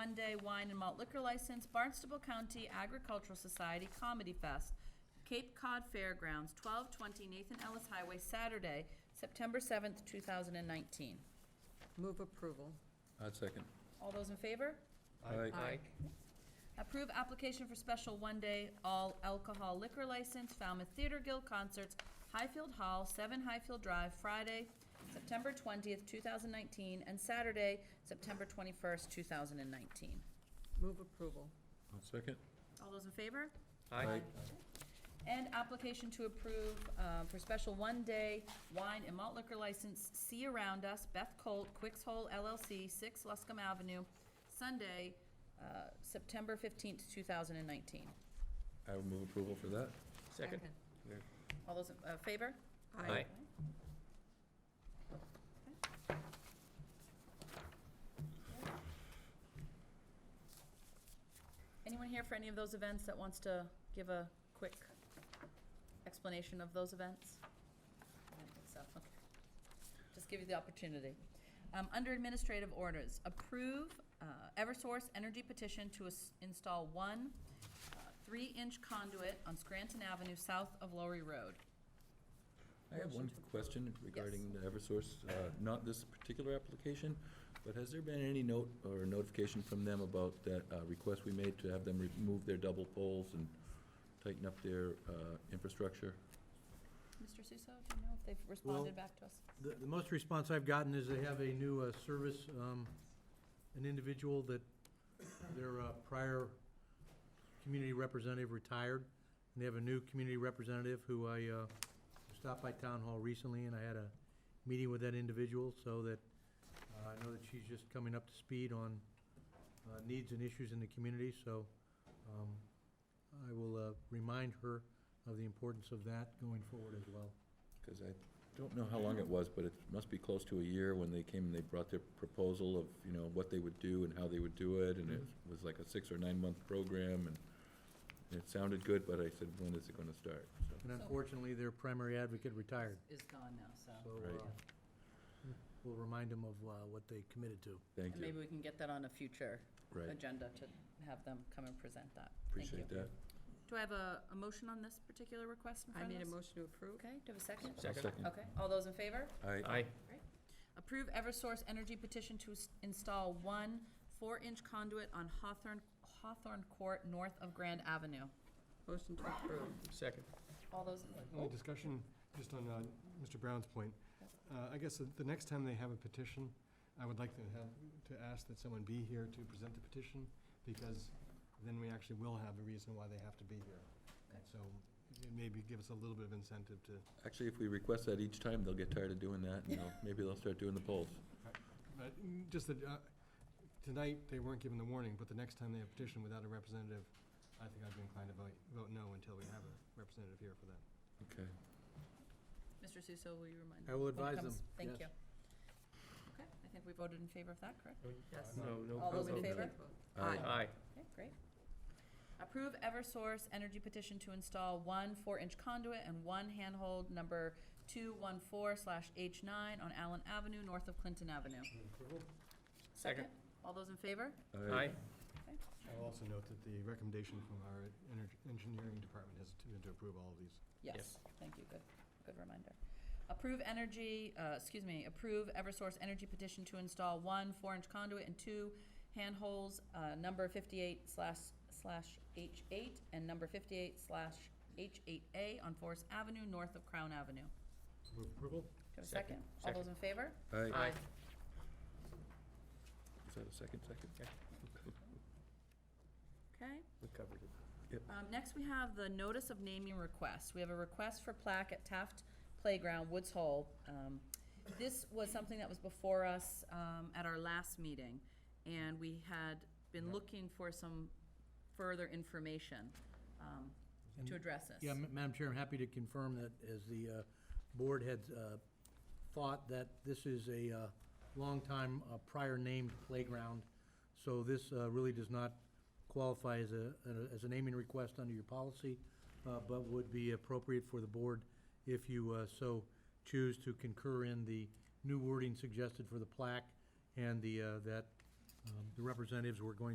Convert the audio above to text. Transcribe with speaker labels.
Speaker 1: one-day wine and malt liquor license, Barnstable County Agricultural Society Comedy Fest, Cape Cod Fairgrounds, 1220 Nathan Ellis Highway, Saturday, September 7th, 2019.
Speaker 2: Move approval.
Speaker 3: I second.
Speaker 1: All those in favor?
Speaker 3: Aye.
Speaker 1: Approve application for special one-day all alcohol liquor license, Falmouth Theater Guild Concerts, Highfield Hall, 7 Highfield Drive, Friday, September 20th, 2019, and Saturday, September 21st, 2019.
Speaker 2: Move approval.
Speaker 3: I second.
Speaker 1: All those in favor? And application to approve uh, for special one-day wine and malt liquor license, See Around Us, Beth Colt, Quicks Hole LLC, 6 Luscombe Avenue, Sunday, uh, September 15th, 2019.
Speaker 3: I would move approval for that.
Speaker 4: Second?
Speaker 1: All those in uh, favor?
Speaker 4: Aye.
Speaker 1: Anyone here for any of those events that wants to give a quick explanation of those events? I don't think so, okay. Just give you the opportunity. Um, Under administrative orders, approve uh, Eversource Energy petition to ins- install one uh, three-inch conduit on Scranton Avenue south of Lowry Road.
Speaker 3: I have one question regarding the Eversource, uh, not this particular application, but has there been any note or notification from them about that uh, request we made to have them remove their double poles and tighten up their uh, infrastructure?
Speaker 1: Mr. Suso, do you know if they've responded back to us?
Speaker 5: The, the most response I've gotten is they have a new uh, service, um, an individual that their uh, prior community representative retired, and they have a new community representative who I uh, stopped by town hall recently, and I had a meeting with that individual, so that uh, I know that she's just coming up to speed on uh, needs and issues in the community, so um, I will uh, remind her of the importance of that going forward as well.
Speaker 3: Because I don't know how long it was, but it must be close to a year when they came and they brought their proposal of, you know, what they would do and how they would do it, and it was like a six or nine-month program, and it sounded good, but I said, when is it gonna start? So,
Speaker 5: And unfortunately, their primary advocate retired,
Speaker 1: Is gone now, so.
Speaker 5: so
Speaker 3: Right.
Speaker 5: uh, we'll remind them of uh, what they committed to.
Speaker 3: Thank
Speaker 1: And maybe
Speaker 3: you.
Speaker 1: we can get that on a future
Speaker 3: Right,
Speaker 1: agenda to have them come and present that. Thank you.
Speaker 3: appreciate that.
Speaker 1: Do I have a, a motion on this particular request in
Speaker 2: I
Speaker 1: front
Speaker 2: need a
Speaker 1: of us?
Speaker 2: motion to approve.
Speaker 1: Okay, do I have a second?
Speaker 3: I'll Second.
Speaker 1: Okay, all those in favor?
Speaker 3: I,
Speaker 4: Aye.
Speaker 1: Approve Eversource Energy petition to s- install one four-inch conduit on Hawthorne, Hawthorne Court north of Grand Avenue.
Speaker 2: Motion to approve.
Speaker 4: Second.
Speaker 1: All those,
Speaker 3: Oh,
Speaker 6: Only discussion, just on uh, Mr. Brown's point. Uh, I guess the- the next time they have a petition, I would like to have, to ask that someone be here to present the petition, because then we actually will have a reason why they have to be here. And so it maybe give us a little bit of incentive to,
Speaker 3: actually, if we request that each time, they'll get tired of doing that, and they'll, maybe they'll start doing the polls.
Speaker 6: but mm, just that, uh, tonight, they weren't given the warning, but the next time they have a petition without a representative, I think I'd be inclined to vote, vote no until we have a representative here for that.
Speaker 3: Okay.
Speaker 1: Mr. Suso, will you remind?
Speaker 5: I
Speaker 1: when
Speaker 5: will
Speaker 1: it
Speaker 5: advise them,
Speaker 1: comes? Thank you.
Speaker 5: yes.
Speaker 1: Okay, I think we voted in favor of that, correct?
Speaker 2: Yes.
Speaker 4: Oh, No, no.
Speaker 1: All those in
Speaker 4: vote.
Speaker 1: favor?
Speaker 3: Aye.
Speaker 4: Aye.
Speaker 1: Okay, great. Approve Eversource Energy petition to install one four-inch conduit and one handhold number two-one-four slash H nine on Allen Avenue, north of Clinton Avenue.
Speaker 4: Second.
Speaker 1: All those in favor?
Speaker 4: Aye.
Speaker 6: I'll also note that the recommendation from our energ- engineering department has been to approve all of these.
Speaker 1: Yes,
Speaker 4: Yes.
Speaker 1: thank you, good, good reminder. Approve energy, uh, excuse me, approve Eversource Energy petition to install one four-inch conduit and two handholds, uh, number fifty-eight slash, slash H eight and number fifty-eight slash H eight A on Forest Avenue, north of Crown Avenue.
Speaker 6: Move approval?
Speaker 1: Do I have a second?
Speaker 4: Second,
Speaker 1: All those in favor?
Speaker 3: Aye. Is that a second, second?
Speaker 1: Okay.
Speaker 4: We covered it.
Speaker 1: Um, next, we have the notice of naming request. We have a request for plaque at Taft Playground, Woods Hole. Um, this was something that was before us, um, at our last meeting, and we had been looking for some further information, um, to address this.
Speaker 5: Yeah, Ma- Madam Chair, I'm happy to confirm that as the uh, board had uh, thought that this is a uh, long time uh, prior named playground, so this uh, really does not qualify as a, as a naming request under your policy, uh, but would be appropriate for the board if you uh, so choose to concur in the new wording suggested for the plaque and the, uh, that um, the representatives were going